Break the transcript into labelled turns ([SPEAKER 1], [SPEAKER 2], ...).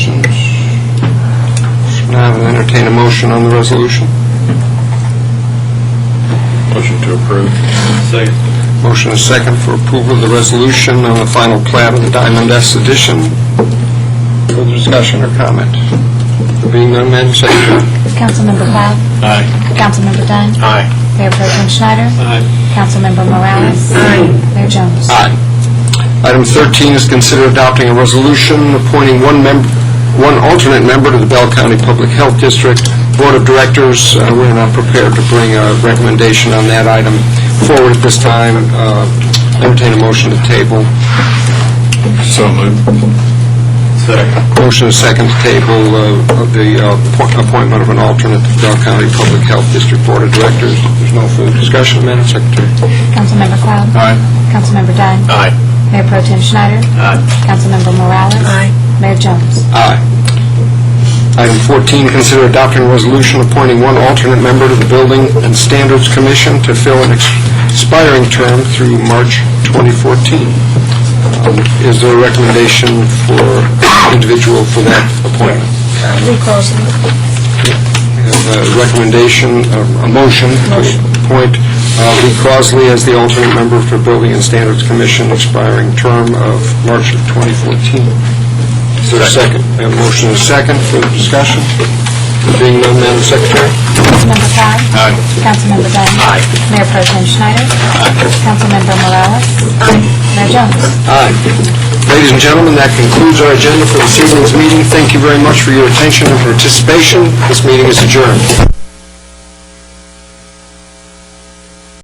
[SPEAKER 1] entertain a motion on the resolution.
[SPEAKER 2] Motion to approve. Second.
[SPEAKER 1] Motion is second for approval of the resolution on the final plat of the Diamond S edition. Further discussion or comment? Being none, Madam Secretary.
[SPEAKER 3] Councilmember Cloud?
[SPEAKER 2] Aye.
[SPEAKER 3] Councilmember Dunn?
[SPEAKER 2] Aye.
[SPEAKER 3] Mayor Pro Tem Schneider?
[SPEAKER 2] Aye.
[SPEAKER 3] Councilmember Morales? Mayor Jones?
[SPEAKER 1] Aye. Item 13 is consider adopting a resolution appointing one member, one alternate member to the Bell County Public Health District Board of Directors. Uh, We're not prepared to bring a recommendation on that item forward at this time. Uh, Entertain a motion to table.
[SPEAKER 2] So moved. Second.
[SPEAKER 1] Motion is second to table uh, of the uh, appo- appointment of an alternate to the Bell County Public Health District Board of Directors. There's no further discussion, Madam Secretary.
[SPEAKER 3] Councilmember Cloud?
[SPEAKER 2] Aye.
[SPEAKER 3] Councilmember Dunn?
[SPEAKER 2] Aye.
[SPEAKER 3] Mayor Pro Tem Schneider?
[SPEAKER 2] Aye.
[SPEAKER 3] Councilmember Morales? Mayor Jones?
[SPEAKER 1] Aye. Item 14, consider adopting a resolution appointing one alternate member to the Building and Standards Commission to fill an expiring term through March 2014. Um, Is there a recommendation for individual for that appointment? We Crosley. Recommendation, uh, a motion to appoint uh, Lee Crosley as the alternate member for Building and Standards Commission, expiring term of March of 2014. Is there a second? We have a motion and a second for discussion. Being none, Madam Secretary.
[SPEAKER 3] Councilmember Cloud?
[SPEAKER 2] Aye.
[SPEAKER 3] Councilmember Dunn?
[SPEAKER 2] Aye.
[SPEAKER 3] Mayor Pro Tem Schneider? Councilmember Morales? Mayor Jones?
[SPEAKER 1] Aye. Ladies and gentlemen, that concludes our agenda for this evening's meeting. Thank you very much for your attention and participation. This meeting is adjourned.